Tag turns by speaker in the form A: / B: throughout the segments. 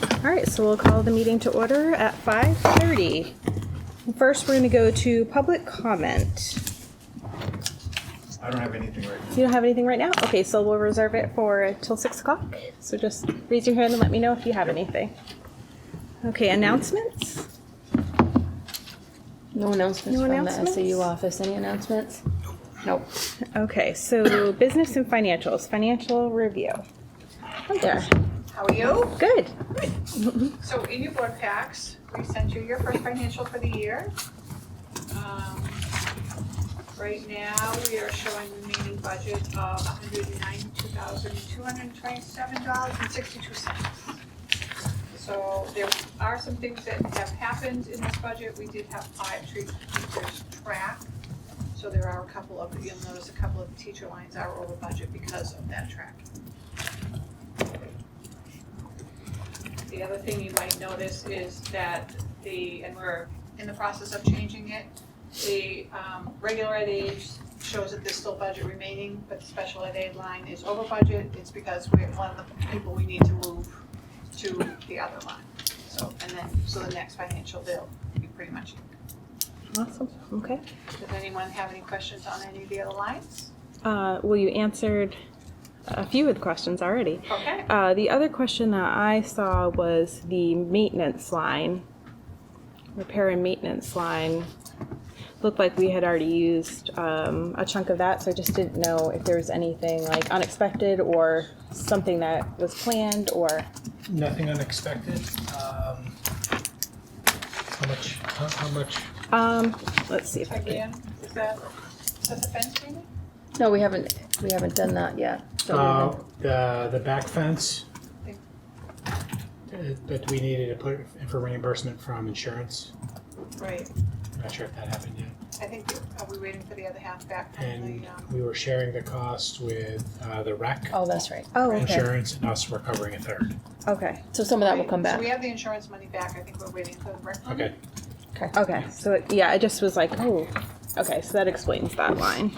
A: All right, so we'll call the meeting to order at 5:30. First, we're going to go to public comment.
B: I don't have anything right now.
A: You don't have anything right now? Okay, so we'll reserve it for till 6 o'clock. So just raise your hand and let me know if you have anything. Okay, announcements?
C: No announcements
A: No
C: from the
A: announcements?
C: SAU office. Any announcements? Nope.
A: Okay, so business and financials, financial review. Hi there.
D: How are you?
A: Good.
D: So in your board packs, we sent you your first financial for the year. Um, Right now, we are showing remaining budget of hundred and ninety-two thousand, two hundred and twenty-seven dollars and sixty-two cents. So there are some things that have happened in this budget. We did have five tree teachers track. So there are a couple of, you'll notice a couple of teacher lines are over budget because of that track. The other thing you might notice is that the, and we're in the process of changing it, the um, regular ed aid shows that there's still budget remaining, but the special ed aid line is over budget. It's because we're one of the people we need to move to the other line. So, and then, so the next financial bill, you pretty much,
A: Awesome. Okay.
D: does anyone have any questions on any of the other lines?
A: Uh, Well, you answered a few of the questions already.
D: Okay,
A: Uh, the other question that I saw was the maintenance line, repair and maintenance line. Looked like we had already used um, a chunk of that, so I just didn't know if there was anything like unexpected or something that was planned or.
B: Nothing unexpected. Um, How much, how how much?
A: Um, let's see if I can.
D: again, is that, is that the fence payment?
C: No, we haven't, we haven't done that yet. So we
B: Uh,
C: haven't-
B: The, the back fence uh, that we needed to put in for reimbursement from insurance.
D: Right,
B: Not sure if that happened yet.
D: I think, are we waiting for the other half back from
B: And
D: the, um?
B: we were sharing the cost with uh, the rec,
C: Oh, that's right.
A: Oh, okay.
B: insurance, and us We're covering a third.
A: Okay.
C: So some of that will
D: Right,
C: come
D: So
C: back.
D: we have the insurance money back, I think we're waiting for the rec money.
B: Okay.
A: Okay. So, it, yeah, I just was like, oh, okay, so that explains that line.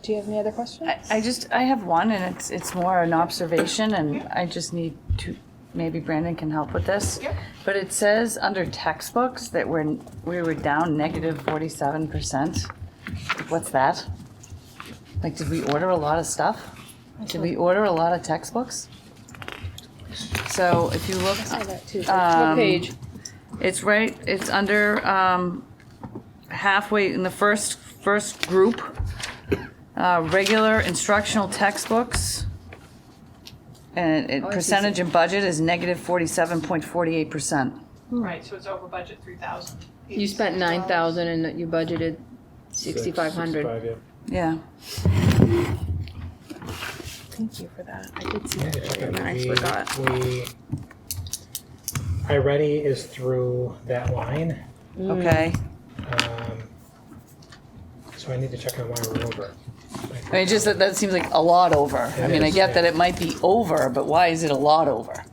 A: Do you have any other questions?
E: I, I just, I have one and it's, it's more an observation and I just need to, maybe Brandon can help with this.
D: Yep.
E: But it says under textbooks that we're, we were down negative forty-seven percent. What's that? Like, did we order a lot of stuff? Did we order a lot of textbooks? So if you look,
C: that too.
E: Um,
C: What page?
E: it's right, it's under um, halfway in the first, first group. Uh, Regular instructional textbooks. And it- percentage and budget is negative 47.48%.
D: Right, so it's over budget three thousand.
C: Hmm. You spent nine thousand and you budgeted sixty-five hundred.
B: Sixty-five,
E: Yeah.
A: Thank you for that. I did see
B: yeah.
A: that earlier and I
B: We-
A: forgot.
B: We, iReady is through that line.
E: Okay.
B: Um, So I need to check on why we're over.
E: I mean, just that, that seems like a lot over. I
B: It
E: mean, I
B: is,
E: get
B: yeah.
E: that it might be over, but why is it a lot over?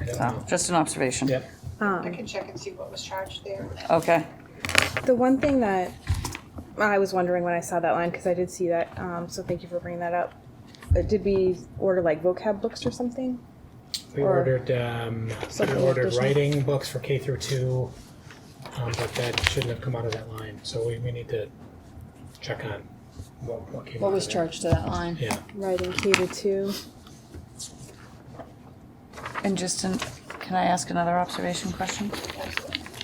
B: I don't
E: So,
B: know.
C: Oh.
E: just an observation.
B: Yep,
A: Um,
D: I can check and see what was charged there.
E: Okay.
A: The one thing that I was wondering when I saw that line, because I did see that, um, so thank you for bringing that up. Uh, Did we order like vocab books or something?
B: we
A: Or-
B: ordered, um, we
A: Something
B: ordered
A: additional.
B: writing books for K through two, um, but that shouldn't have come out of that line, so we, we need to check on what, what came out
C: What
B: of
C: was
B: there.
C: charged to that line?
B: Yeah,
A: Writing K to two.
E: And just, an- can I ask another observation question?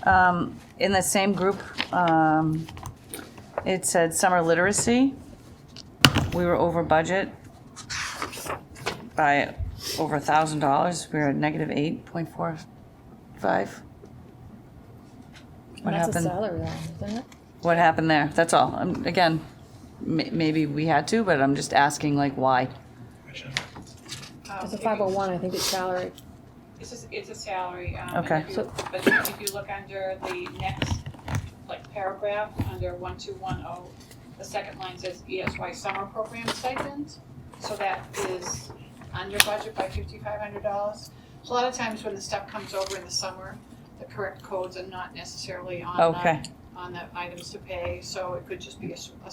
E: Um, In the same group, um, it said summer literacy. We were over budget by over a thousand dollars. We were at negative eight point four five. What
C: That's a
E: happened?
C: salary line, isn't it?
E: What happened there? That's all. Um, Again, ma- maybe we had to, but I'm just asking like why.
B: which, uh,
D: Um,
C: It's a
D: if
C: five
D: you-
C: oh one, I think it's salary.
D: It's a, it's a salary, um, and
E: Okay.
D: if you, but if you look under the next, like, paragraph, under one two one oh, the second line says ESY summer program stipend, so that is under budget by fifty-five hundred dollars. A lot of times when the stuff comes over in the summer, the correct codes are not necessarily on the,
E: Okay.
D: on the items to pay, so it could just be a s a